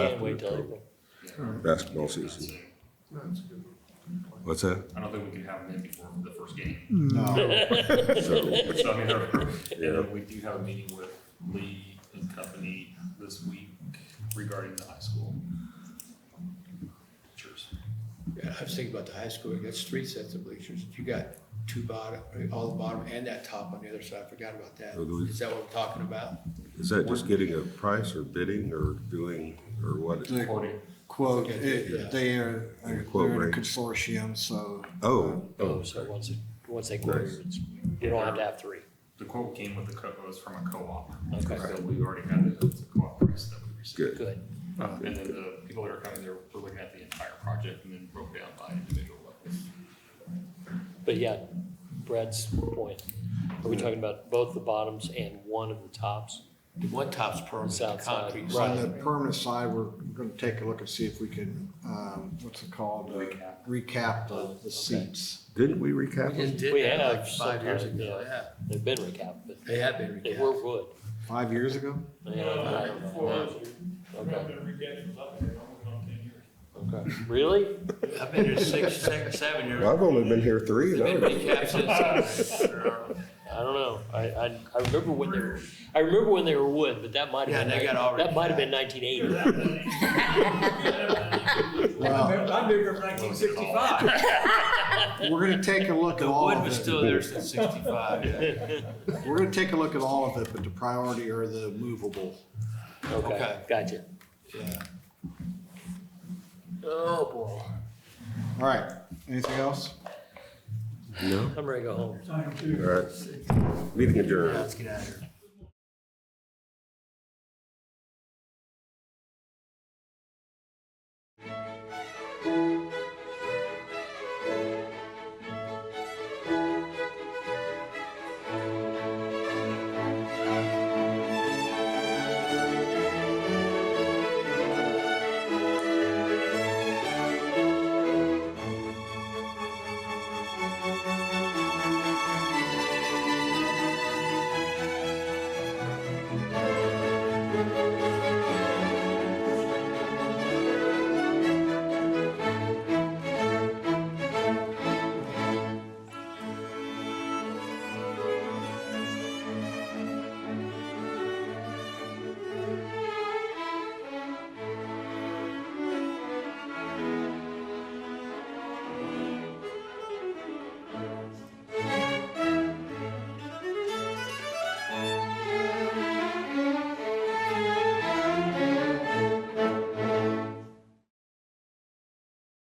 can't wait till April. basketball season. What's that? I don't think we can have them in before the first game. No, So, So I mean, they're- and Yeah. then we do have a meeting with Lee and company this week regarding the high school. Cheers. Yeah, I was thinking about the high school, it gets three sets of bleachers, you got two bottom, all the bottom and that top on the other side, I forgot about that. Oh, do we- Is that what we're talking about? Is that just getting a price or bidding or doing, or what? The Forty. quote, Okay, yeah. it- they are, they're Quote in a rate. consortium, so Oh, Oh, so once, it- once they quote, Nice. it's, you don't have to have three. The quote came with the co, was from a co-op. Okay. So we already had it, it was a co-op price that we received. good. Good. Uh, And then the people that are coming, there were looking at the entire project and then broke down by individual levels. But yeah, Brad's point, are we talking about both the bottoms and one of the tops? The one top's permanent, the South side, concrete. right. on the permanent side, we're gonna take a look and see if we can, um, what's it called? Uh, Recap. Recap the, the seats. Didn't we recap? We it? just did We that have like five years sometime, ago, yeah. yeah, They've been recapped, but they have been they were recapped. wood. Five years ago? You know, I don't know. Okay. Okay. Really? I've been here six, six, seven years. I've only been here three, and oh. I They've don't been know. recapped since- I don't know. I, I, I remember when they were, I remember when they were wood, but that might have Yeah, been. they like- got all That might have been nineteen eighty. Well, I've been here from nineteen sixty-five. we're gonna take a look at The all wood of was it. still there since sixty-five, yeah. We're gonna take a look at all of it, but the priority are the movable. Okay, Okay. gotcha. yeah. Oh, boy. All right, anything else? No? I'm ready to go home. All right. Meeting adjourned. Let's get out of here.